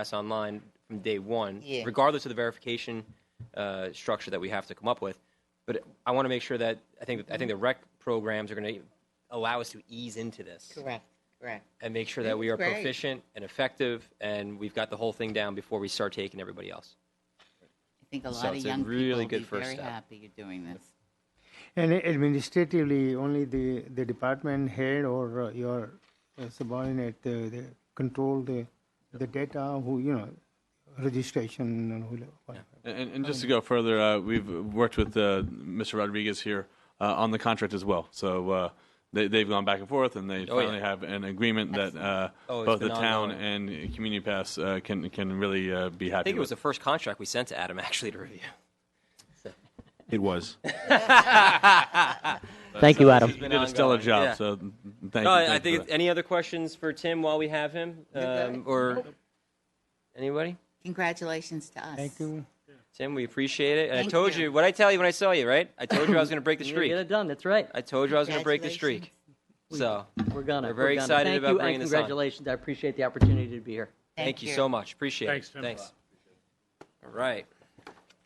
pass online from day one, Yeah. regardless of the verification uh, structure that we have to come up with. But I want to make sure that I think I think the rec programs are going to allow us to ease into this Correct, correct. and make sure that we are That's great. proficient and effective, and we've got the whole thing down before we start taking everybody else. I think a So lot of it's a young people really will be good first very step. happy you're doing this. And administratively, only the, the department head or uh, your uh, subordinate, uh, they control the, the data, who, you know, registration and who, whatever. And, and Um, just to go further, uh, we've worked with uh, Mr. Rodriguez here uh, on the contract as well. So uh, they, they've gone back and forth, and they Oh, yeah. finally have an agreement that uh, Oh, it's both the been town ongoing. and Community Pass uh, can can really uh, be happy. I think it was with. the first contract we sent to Adam actually to review. It was. Thank you, Adam. he did a stellar ongoing, job. uh, yeah. So thank No, I- you. I thank you think for it's, any other questions for Tim while we have him, um, or anybody? Congratulations to us. Thank you. Tim, we appreciate it. And I Thank told you. you what I tell you when I saw you, right? I told you I was going to break the You're gonna streak. Get it done. That's right. I told you I was going to break the streak. Congratulations. So, We're gonna. We're very gonna. excited Thank about you bringing and this on. congratulations. I appreciate the opportunity to be here. thank you so much. Appreciate Thanks, it. Tim. Thanks. All right.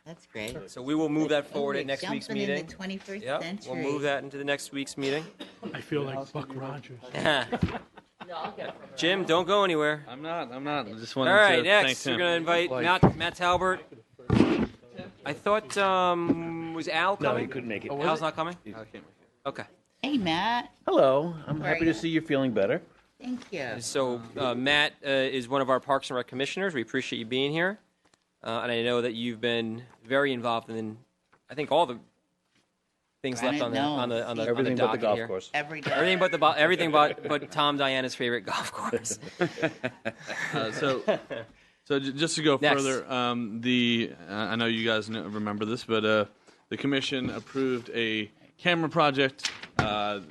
That's great. So we will move that forward Ooh, at next week's Jumping in meeting. the 21st Yep, century. we'll move that into the next week's meeting. I feel like Buck Rogers. Jim, don't go anywhere. I'm not. I'm not. I just wanted All right, to thank next Tim. we're going to invite Matt, Matt Talbert. I thought um, was Al coming? he couldn't make it. Oh, was Al's it? not coming. Okay. Hey, Matt, Hello, I'm Where are happy you? to see you're feeling better. thank you. So uh, Matt uh, is one of our Parks and Rec commissioners. We appreciate you being here, uh, and I know that you've been very involved in, I think, all the things left Granite on the on the on the, on the Everything but the docket golf here. course. Every day. Everything but the bo- everything but but Tom Diana's favorite golf course. Uh, so, so j- just to go Next. further, um, the uh, I know you guys kn- remember this, but uh, the commission approved a camera project. Uh,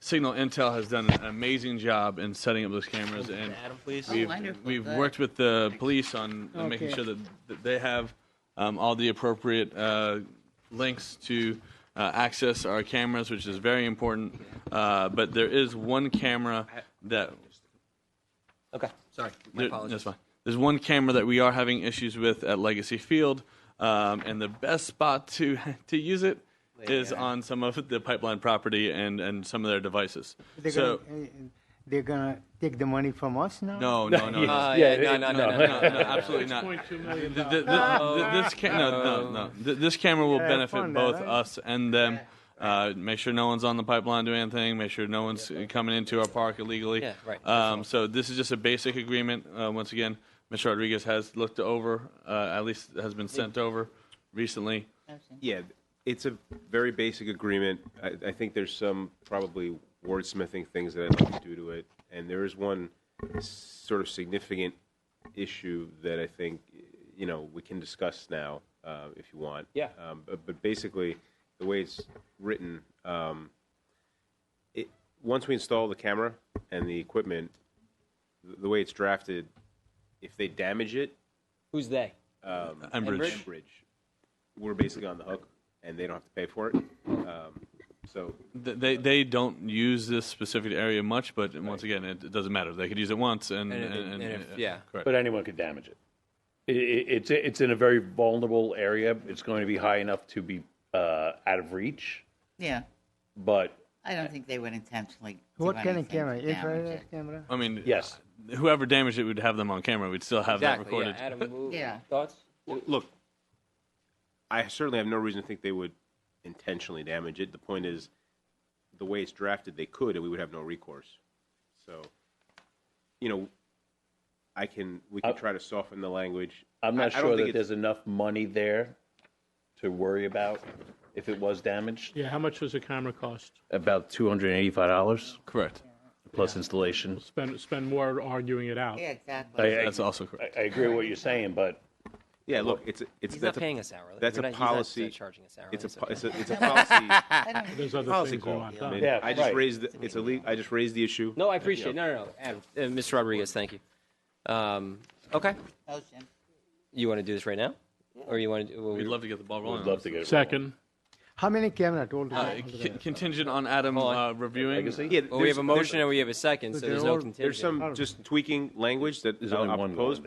Signal Intel has done an amazing job in setting up those cameras, and Adam, please. Oh, wonderful. we've Good. worked with the police on making Okay. sure that, that they have um, all the appropriate uh, links to uh, access our cameras, which is very important. Uh, but there is one camera that Okay. Sorry. My there- apologies. That's fine. There's one camera that we are having issues with at Legacy Field, um, and the best spot to to use it is on some of the pipeline property and, and some of their devices. They're So gonna, uh, they're gonna take the money from us now? no, no, no, no, Uh, no, yeah, it- no, no, no, no, no, no, no, absolutely not. $6.2 million. Th- th- th- Oh, This ca- no, no, no. Th- This camera will Uh, Yeah, benefit fun now, both right? us and them. Uh, make sure no one's on the pipeline doing anything. Make sure no one's coming into our park illegally. Yeah, right. Um, so this is just a basic agreement. Uh, once again, Mr. Rodriguez has looked over, uh, at least has been sent over recently. Yeah, it's a very basic agreement. I, I think there's some probably wordsmithing things that I'd like to do to it. And there is one sort of significant issue that I think, you know, we can discuss now, uh, if you want. Yeah. Um, but, but basically, the way it's written, um, it, once we install the camera and the equipment, the, the way it's drafted, if they damage it, um, Who's they? Enbridge. Enbridge. We're basically on the hook, and they don't have to pay for it. Um, so Th- They they don't use this specific area much, but once again, it, it doesn't matter. They could use it once, and, And- and- and if- yeah. correct. But anyone could damage it. I- i- It's, it's in a very vulnerable area. It's going to be high enough to be uh, out of reach, Yeah, but I don't think they would intentionally do What kind anything of camera? to damage Infrared it. camera? I mean, Yes. Whoever damaged it would have them on camera. We'd still have that Exactly. Yeah. recorded. Adam, who- Yeah. thoughts? look, I certainly have no reason to think they would intentionally damage it. The point is, the way it's drafted, they could, and we would have no recourse. So, you know, I can we can try to soften the language. Uh, I'm not I- I don't sure think that it's- there's enough money there to worry about if it was damaged. Yeah, how much does a camera cost? About $285 Correct. plus installation. Spend, spend more arguing it out. Yeah, I, exactly. I, That's also correct. I I agree with what you're saying, but Yeah, look, it's a- it's He's not that's paying a, us hourly. that's We're not- a he's not, uh, policy. charging us hourly. It's a so- po- it's a it's a policy. I don't There's other policy things we call. want I, done. mean, Yeah, I just right. raised the, it's a le- I just raised the issue. No, I appreciate it. No, no, no. Adam, uh, Mr. Rodriguez, thank you. Um, okay. Motion. You want to do this right now? Or you want to do. Well, We'd love to get the ball rolling. we'd love to get it. Second, How many camera told? Uh, c- contingent on Adam Hold on. uh, reviewing. Legacy? Yeah, well, we there's- have a there's- motion and we have a second, so There there's no are- contingent. There's some just tweaking language that There's I'll only I'll one propose, going